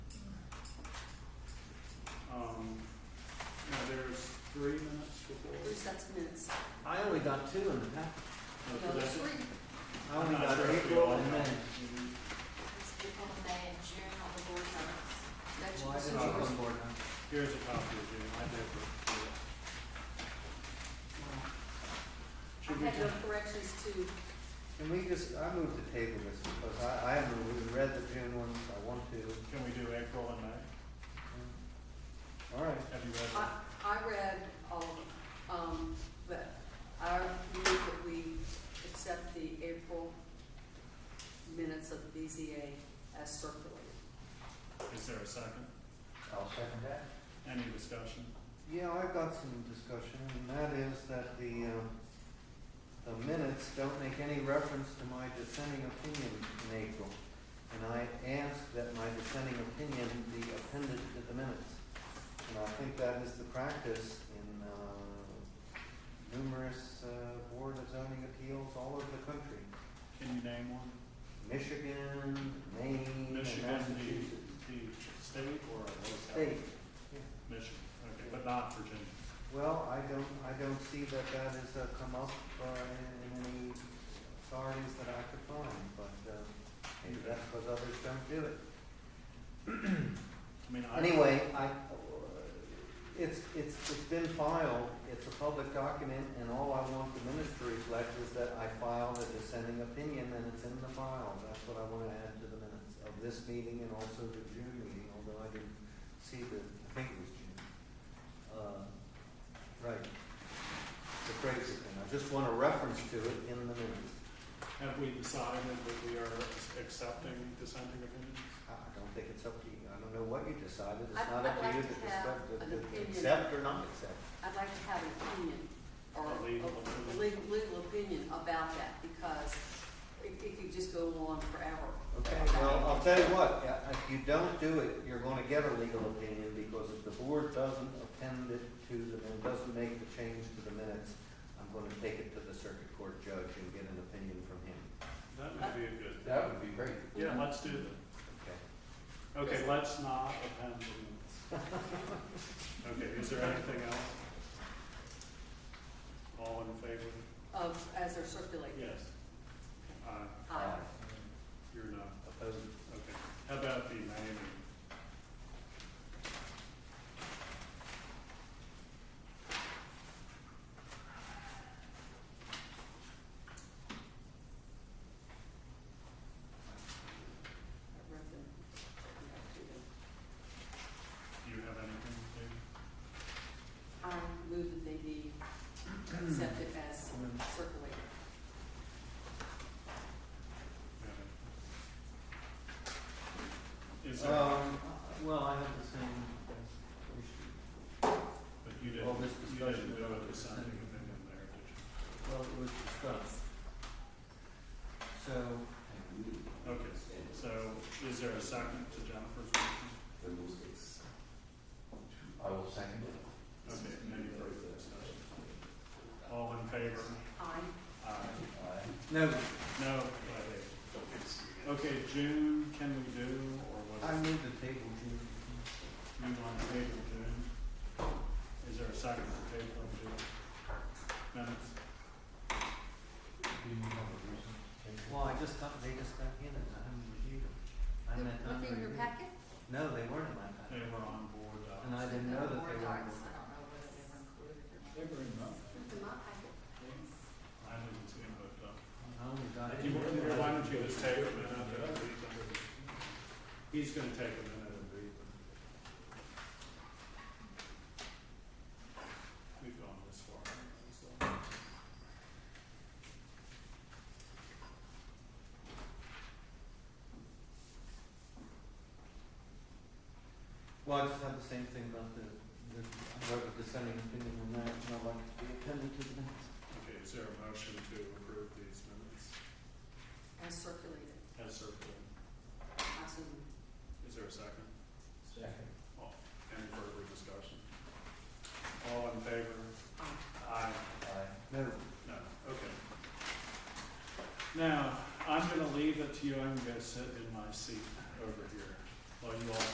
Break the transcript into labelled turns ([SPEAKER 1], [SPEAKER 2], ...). [SPEAKER 1] Um,
[SPEAKER 2] sets of minutes.
[SPEAKER 3] I only got two in the pack.
[SPEAKER 1] Oh,
[SPEAKER 2] No, there's three.
[SPEAKER 3] I only
[SPEAKER 1] I'm not
[SPEAKER 3] got
[SPEAKER 1] sure if we
[SPEAKER 3] April
[SPEAKER 1] all
[SPEAKER 3] and
[SPEAKER 1] got
[SPEAKER 3] May.
[SPEAKER 2] It's April, May, and June on the board minutes. That should
[SPEAKER 3] Why
[SPEAKER 2] be
[SPEAKER 3] did
[SPEAKER 1] not
[SPEAKER 3] I
[SPEAKER 2] yours.
[SPEAKER 3] come forward now?
[SPEAKER 1] Here's a copy of June, I did. but, yeah.
[SPEAKER 2] I
[SPEAKER 1] Should we,
[SPEAKER 2] had no
[SPEAKER 1] just-
[SPEAKER 2] corrections to,
[SPEAKER 3] Can we just, I moved to table this because I, I haven't even read the June ones, I want to.
[SPEAKER 1] can we do April and May?
[SPEAKER 3] All right,
[SPEAKER 1] Have you
[SPEAKER 2] I,
[SPEAKER 1] read
[SPEAKER 2] I read all of them, um, but I move that we accept the April minutes of the BZA as circulated.
[SPEAKER 1] it? Is there a second?
[SPEAKER 3] I'll second that.
[SPEAKER 1] Any discussion?
[SPEAKER 3] Yeah, I've got some discussion, and that is that the, um, the minutes don't make any reference to my dissenting opinion in April. And I asked that my dissenting opinion be appended to the minutes. And I think that is the practice in, uh, numerous, uh, board of zoning appeals all over the country.
[SPEAKER 1] Can you name one?
[SPEAKER 3] Michigan, Maine, and
[SPEAKER 1] Michigan,
[SPEAKER 3] Mm, Massachusetts.
[SPEAKER 1] the, the state or a local?
[SPEAKER 3] State, yeah.
[SPEAKER 1] Michigan, okay, but not Virginia.
[SPEAKER 3] Well, I don't, I don't see that that has uh, come up uh, in in any authorities that I could find, but um, maybe that's because others don't do it.
[SPEAKER 1] I mean, I.
[SPEAKER 3] Anyway, I, it's, it's, it's been filed, it's a public document, and all I want the minutes to reflect is that I filed a dissenting opinion, and it's in the file. That's what I want to add to the minutes of this meeting and also the June meeting, although I didn't see the, I think it was June. Uh, Right. The phrase, and I just want a reference to it in the minutes.
[SPEAKER 1] Have we decided that we are accepting dissenting opinions?
[SPEAKER 3] I I don't think it's up to you, I don't know what you decided, it's
[SPEAKER 2] I'd-
[SPEAKER 3] not up to
[SPEAKER 2] I'd
[SPEAKER 3] you
[SPEAKER 2] like
[SPEAKER 3] to
[SPEAKER 2] to have
[SPEAKER 3] discuss, to-
[SPEAKER 2] an
[SPEAKER 3] to
[SPEAKER 2] opinion.
[SPEAKER 3] accept or not accept.
[SPEAKER 2] I'd like to have an opinion, or
[SPEAKER 1] A legal
[SPEAKER 2] a
[SPEAKER 1] opinion.
[SPEAKER 2] legal, legal opinion about that, because it, it could just go on forever.
[SPEAKER 3] Okay, well, I'll tell you what, uh, if you don't do it, you're gonna get a legal opinion, because if the board doesn't append it to the, and doesn't make the change to the minutes, I'm gonna take it to the circuit court judge and get an opinion from him.
[SPEAKER 1] That would be a good.
[SPEAKER 3] That would be great.
[SPEAKER 1] Yeah, let's do that.
[SPEAKER 3] Okay.
[SPEAKER 1] Okay, let's not append the minutes. Okay, is there anything else? All in favor?
[SPEAKER 2] Of, as they're circulated.
[SPEAKER 1] Yes. Aye,
[SPEAKER 2] Aye.
[SPEAKER 1] you're not,
[SPEAKER 3] Opposed?
[SPEAKER 1] okay. How about the May meeting?
[SPEAKER 2] I read them.
[SPEAKER 1] Do you have anything to do?
[SPEAKER 2] I move that they be accepted as circulated.
[SPEAKER 1] Yeah. Is there,
[SPEAKER 3] Um, well, I have the same issue.
[SPEAKER 1] but you didn't,
[SPEAKER 3] well, this
[SPEAKER 1] you didn't
[SPEAKER 3] discussion
[SPEAKER 1] do
[SPEAKER 3] about
[SPEAKER 1] a dissenting
[SPEAKER 3] dissenting.
[SPEAKER 1] opinion there, did you?
[SPEAKER 3] Well, it was discussed. So.
[SPEAKER 1] Okay, so is there a second to Jennifer's motion?
[SPEAKER 3] I will second it.
[SPEAKER 1] Okay, any further discussion? All in favor?
[SPEAKER 2] I,
[SPEAKER 1] Aye.
[SPEAKER 3] No,
[SPEAKER 1] No, aye. Okay, June, can we do, or
[SPEAKER 3] I
[SPEAKER 1] what?
[SPEAKER 3] move the table, Jim.
[SPEAKER 1] You want to table June? Is there a second to table of June? Minutes?
[SPEAKER 3] Well, I just got, they just got in and I haven't reviewed them. I
[SPEAKER 2] They're
[SPEAKER 3] meant not
[SPEAKER 2] not in your
[SPEAKER 3] reviewed.
[SPEAKER 2] packet?
[SPEAKER 3] No, they weren't in my
[SPEAKER 1] They
[SPEAKER 3] packet.
[SPEAKER 1] were on board, uh,
[SPEAKER 3] And I didn't know that they were.
[SPEAKER 2] I don't know
[SPEAKER 3] in the-
[SPEAKER 2] whether they were included or not.
[SPEAKER 1] They were in that.
[SPEAKER 2] It's in my packet.
[SPEAKER 1] I didn't see them, but, uh,
[SPEAKER 3] I only got
[SPEAKER 1] If
[SPEAKER 3] in-
[SPEAKER 1] you want, why don't you just take a minute and read them? He's gonna take a minute and read them. We've gone this far. so.
[SPEAKER 3] Well, I just had the same thing about the, the, I wrote a dissenting opinion on that and I'd like to be appended to the minutes.
[SPEAKER 1] Okay, is there a motion to approve these minutes
[SPEAKER 2] As circulated,
[SPEAKER 1] as circulated?
[SPEAKER 2] I assume.
[SPEAKER 1] Is there a second?
[SPEAKER 3] Second.
[SPEAKER 1] Oh, Any further discussion? All in favor?
[SPEAKER 2] Aye.
[SPEAKER 1] Aye.
[SPEAKER 3] No,
[SPEAKER 1] No, okay. Now, I'm gonna leave it to you, I'm gonna sit in my seat over here while you all